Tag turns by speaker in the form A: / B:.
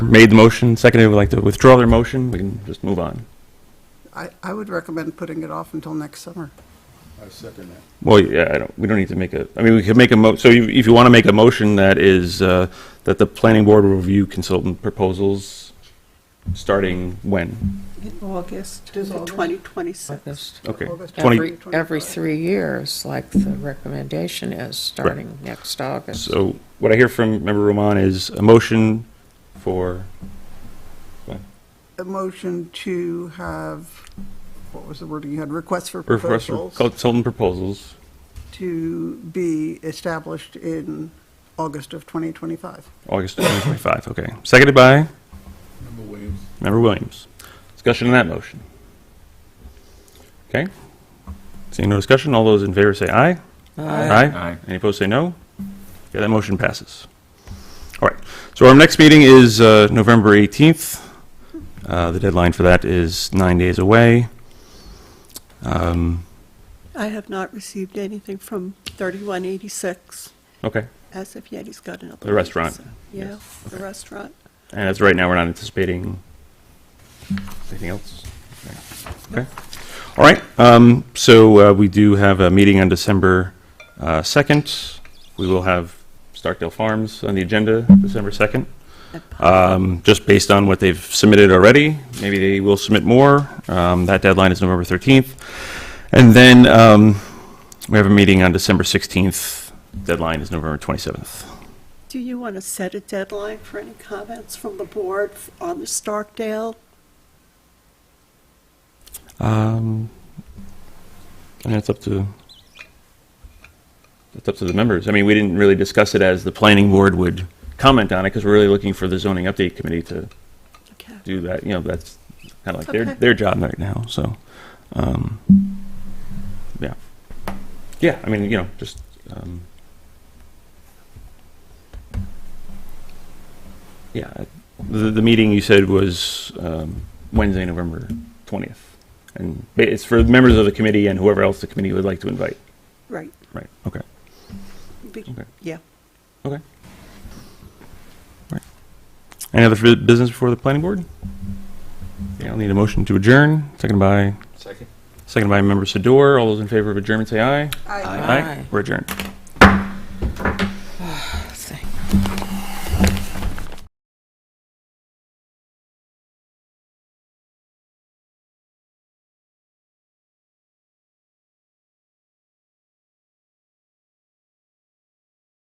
A: made the motion, seconded, would like to withdraw their motion, we can just move on.
B: I, I would recommend putting it off until next summer.
C: I second that.
A: Well, yeah, I don't, we don't need to make a, I mean, we could make a mo, so you- if you want to make a motion that is, uh, that the planning board will review consultant proposals, starting when?
D: in August
B: It is
D: of
B: August.
D: 2026.
E: August.
A: Okay.
B: August
A: Twenty.
E: Every, every three years, like the recommendation is, starting next August.
A: So what I hear from Member Roman is a motion for,
B: A motion to have, what was the wording you had, requests for
A: or for us for
B: proposals
A: consultant proposals,
B: to be established in August of 2025.
A: August 2025, okay. Seconded by
C: Member Williams?
A: Member Williams. Discussion on that motion. Okay. Seeing no discussion, all those in favor say aye. Aye. Any opposed, say no. Yeah, that motion passes. All right, so our next meeting is uh, November 18th. Uh, The deadline for that is nine days away. Um,
D: I have not received anything from 3186
A: Okay,
D: as of yet. He's got another.
A: The
D: one,
A: restaurant.
D: so- Yeah, the restaurant.
A: and as of right now, we're not anticipating anything else. Okay, all right, um, so uh, we do have a meeting on December uh, 2nd. We will have Starkdale Farms on the agenda, December 2nd. um, just based on what they've submitted already. Maybe they will submit more. Um, that deadline is November 13th. And then um, we have a meeting on December 16th. Deadline is November 27th.
D: Do you want to set a deadline for any comments from the board f- on the Starkdale?
A: Um, and that's up to that's up to the members. I mean, we didn't really discuss it as the planning board would comment on it because we're really looking for the zoning update committee to
D: Okay.
A: do that. You know, that's kind of like their
D: Okay.
A: their job right now. So, um, yeah, yeah. I mean, you know, just um, yeah. I- The the meeting you said was um, Wednesday, November twentieth, and ba- it's for members of the committee and whoever else the committee would like to invite.
D: Right.
A: Right. Okay.
D: Be-
A: Okay.
D: Yeah.
A: Okay. Right. Any other bu- business before the planning board? Okay, I'll need a motion to adjourn, seconded by,
C: Second.
A: seconded by member Sador. All those in favor of adjournment, say aye.
E: Aye.
A: We're adjourned.